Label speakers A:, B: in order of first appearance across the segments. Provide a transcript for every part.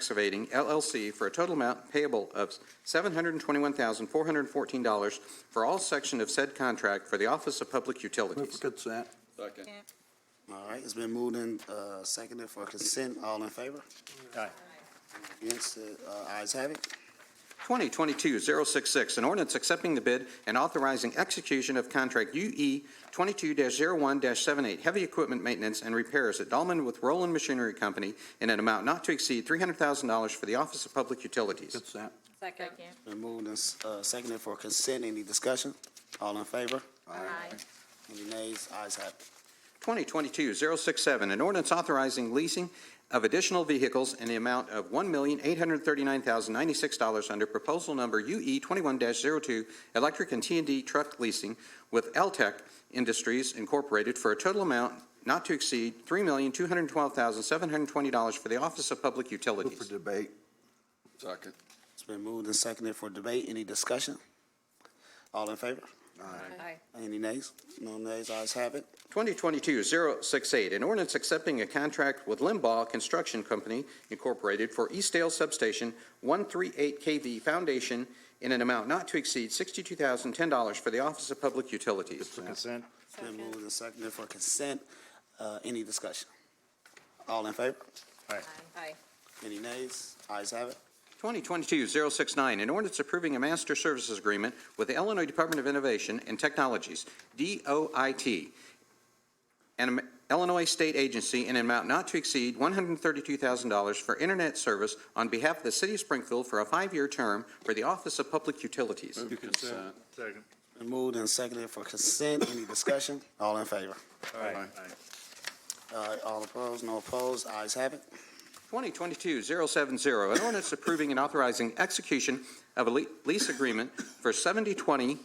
A: Excavating LLC for a total amount payable of $721,414 for all section of said contract for the Office of Public
B: Move for
A: Utilities.
B: consent.
C: Second.
D: All right, it's been moved and uh, seconded for consent. All in favor?
B: Aye.
D: Against, uh, ayes have it.
A: 2022-066, an ordinance accepting the bid and authorizing execution of contract E UE 22-01-78, heavy equipment maintenance and repairs at Dahlman with Roland Machinery Company in an amount not to exceed $300,000 for the Office of Public Utilities.
B: Consent.
E: Second.
D: Been moved and uh, seconded for consent. Any discussion? All in favor? Any nays? Ayes have it.
A: 2022-067, an ordinance authorizing leasing of additional vehicles in the amount of $1,839,096 under proposal number E UE 21-02, electric and t and D truck leasing with LTEC Industries Incorporated for a total amount not to exceed $3,212,720 for the Office of Public
B: Move for
A: Utilities.
B: debate.
C: Second.
D: It's been moved and seconded for debate. Any discussion? All in favor?
E: Aye.
D: Any nays? No nays? Ayes have it.
A: 2022-068, an ordinance accepting a contract with Limbaugh Construction Company Incorporated for Eastdale Substation 138 KV Foundation in an amount not to exceed $62,010 for the Office of Public Utilities.
B: Consent.
D: It's been moved and seconded for consent. Uh, Any discussion? All in favor?
E: Aye.
D: Any nays? Ayes have it.
A: 2022-069, an ordinance approving a master services agreement with the Illinois Department of Innovation and Technologies, DOIT, and Illinois State Agency in an amount not to exceed $132,000 for internet service on behalf of the City of Springfield for a five-year term for the Office of Public Utilities.
C: Move consent.
B: Second.
D: Been moved and seconded for consent. Any discussion? All in favor?
C: Aye.
D: Uh, All opposed? No opposed? Ayes have it.
A: 2022-070, an ordinance approving and authorizing execution of a le- lease agreement for 7020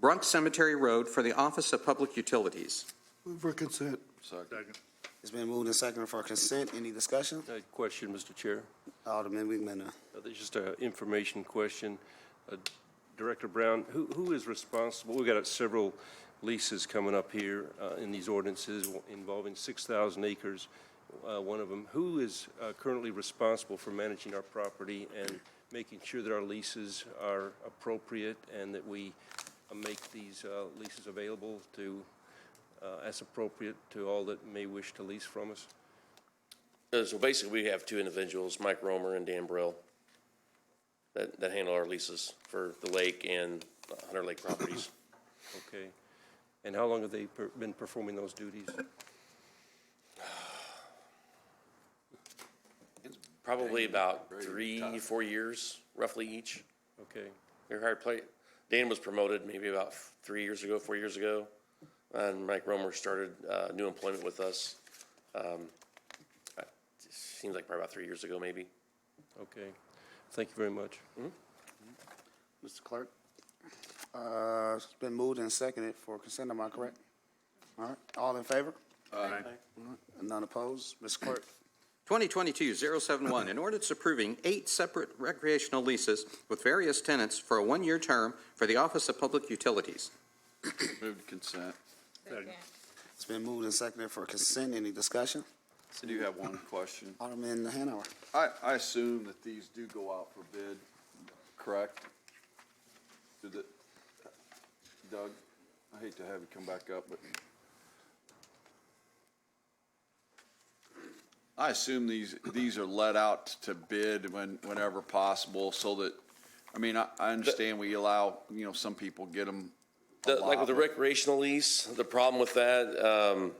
A: Brunk Cemetery Road for the Office of Public Utilities.
B: Move for consent.
C: Second.
D: It's been moved and seconded for consent. Any discussion?
F: A Question, Mr. Chair.
D: Alderman Weedmaner.
F: Uh, This is just an information question. Uh, Director Brown, who, who is responsible? We've got several leases coming up here uh, in these ordinances involving 6,000 acres, uh, one of them. Who is uh, currently responsible for managing our property and making sure that our leases are appropriate and that we uh, make these uh, leases available to, uh, as appropriate to all that may wish to lease from us?
G: Uh, So basically, we have two individuals, Mike Romer and Dan Brill, that, that handle our leases for the lake and Hunter Lake properties.
F: Okay. And how long have they per- been performing those duties?
G: Probably about three, four years roughly each.
F: Okay,
G: They're hired play, Dan was promoted maybe about three years ago, four years ago. And Mike Romer started, uh, new employment with us, um, uh, seems like probably about three years ago, maybe.
F: okay. Thank you very much.
D: Mr. Clerk? Uh, It's been moved and seconded for consent, am I correct? All right, all in favor?
C: Aye.
D: None opposed? Mr. Clerk?
A: 2022-071, an ordinance approving eight separate recreational leases with various tenants for a one-year term for the Office of Public Utilities.
C: Move consent.
E: Second.
D: It's been moved and seconded for consent, any discussion?
C: I do have one question.
D: Alderman Hanover?
C: I, I assume that these do go out for bid, correct? Do the, Doug, I hate to have you come back up, but I assume these, these are let out to bid when, whenever possible, so that, I mean, I, I understand we allow, you know, some people get them.
G: The- Like with the recreational lease, the problem with that um,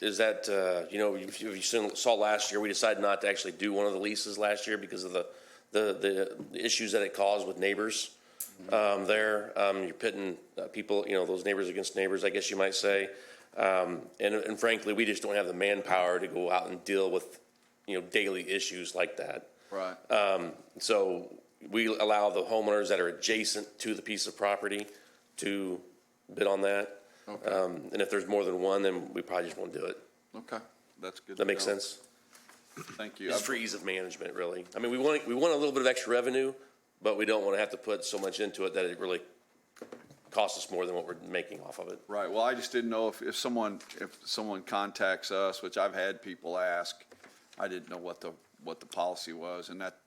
G: is that, uh, you know, if you if you seen- saw last year, we decided not to actually do one of the leases last year because of the, the, the issues that it caused with neighbors um, there. Um, You're pitting uh, people, you know, those neighbors against neighbors, I guess you might say. Um, And and frankly, we just don't have the manpower to go out and deal with, you know, daily issues like that.
C: Right.
G: uh, So we allow the homeowners that are adjacent to the piece of property to bid on that.
C: Okay.
G: Um, And if there's more than one, then we probably just won't do it.
C: Okay, that's good.
G: That
C: to
G: makes
C: know.
G: sense?
C: Thank you.
G: It's for ease of management, really. I mean, we want, we want a little bit of extra revenue, but we don't want to have to put so much into it that it really costs us more than what we're making off of it.
C: Right, well, I just didn't know if, if someone, if someone contacts us, which I've had people ask, I didn't know what the, what the policy was, and that